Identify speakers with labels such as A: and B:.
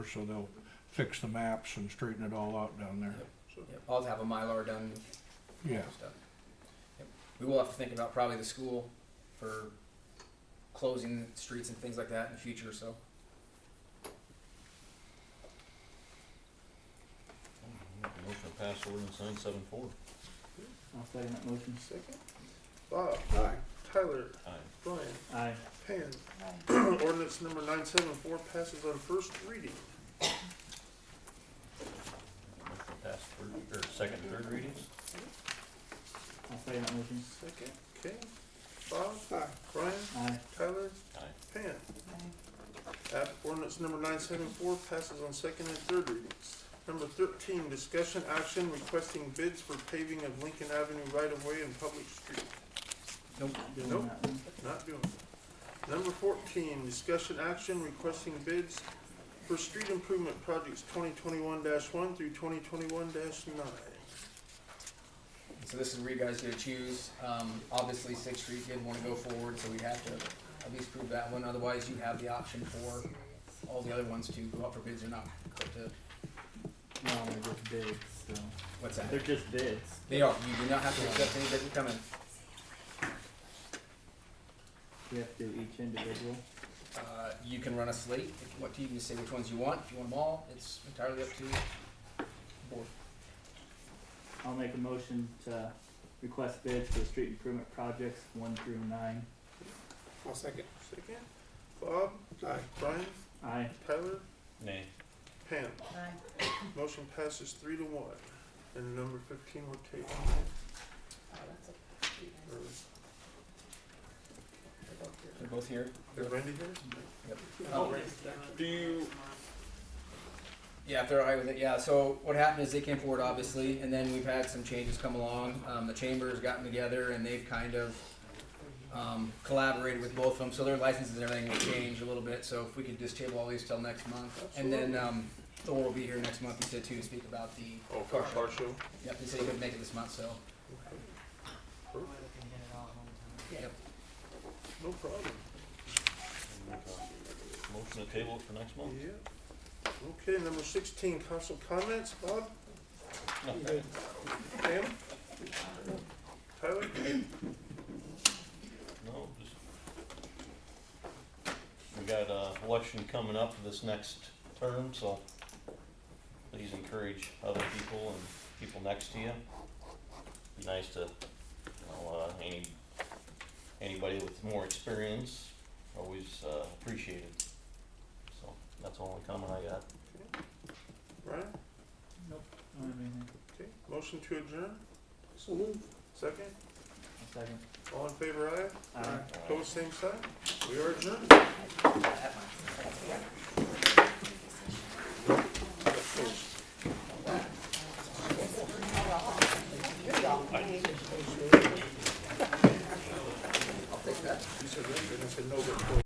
A: so they'll fix the maps and straighten it all out down there. So,
B: Yep, I'll have a Mylar done,
A: Yeah,
B: stuff. Yep. We will have to think about probably the school for closing streets and things like that in the future, so.
C: Motion to pass ordinance nine seven four.
D: I'll second that motion.
E: Second. Bob. Aye. Tyler.
C: Aye.
E: Brian.
D: Aye.
E: Pam. Ordinance number nine seven four passes on first reading.
C: Motion to pass third, or second, and third readings?
D: I'll second that motion.
E: Second. Okay. Bob. Aye. Brian.
D: Aye.
E: Tyler.
C: Aye.
E: Pam. App ordinance number nine seven four passes on second and third readings. Number thirteen, discussion action requesting bids for paving of Lincoln Avenue right of way and public street.
B: Nope.
D: Doing
E: Nope.
D: that one.
E: Not doing it. Number fourteen, discussion action requesting bids for street improvement projects twenty twenty-one one through twenty twenty-one nine.
B: So this is where you guys get to choose. Um, obviously Sixth Street didn't want to go forward, so we have to at least prove that one. Otherwise, you have the option for all the other ones to go up for bids or not. But, uh,
D: No, they're just bids, so.
B: What's that?
D: They're just bids.
B: They are. You do not have to accept any bid that come in.
D: We have to do each individual.
B: Uh, you can run a slate. If- What you can say which ones you want. If you want them all, it's entirely up to the board.
D: I'll make a motion to request bids for street improvement projects one through nine.
E: I'll second. Second. Bob? Aye. Brian?
D: Aye.
E: Tyler?
C: Nay.
E: Pam? Motion passes three to one. And number fifteen we're tabling. Or is-
B: They're both here.
E: is Randy here? Oh,
B: Um,
E: Do you?
B: Yeah, if they're all right with it, yeah. So what happened is they came forward, obviously, and then we've had some changes come along. Um, the chamber's gotten together and they've kind of um, collaborated with both of them, so their licenses and everything will change a little bit. So if we could just table all these till next month, and then um, Thor will be here next month. He said too to speak about the.
E: Oh, car car show.
B: Yep, he said he couldn't make it this month, so yep.
E: No problem.
C: Motion to table it for next month?
E: Yeah. Okay, number sixteen, council comments. Bob? Pam? Tyler?
C: No, just. We got a election coming up this next term, so please encourage other people and people next to you. Be nice to, you know, uh, any, anybody with more experience, always uh, appreciated. So that's the only comment I got.
E: Brian?
D: I don't have anything.
E: Okay, motion to adjourn? Second?
D: I'll second.
E: All in favor, aye?
D: Aye.
E: Pose same sign. We are adjourned.
B: That might-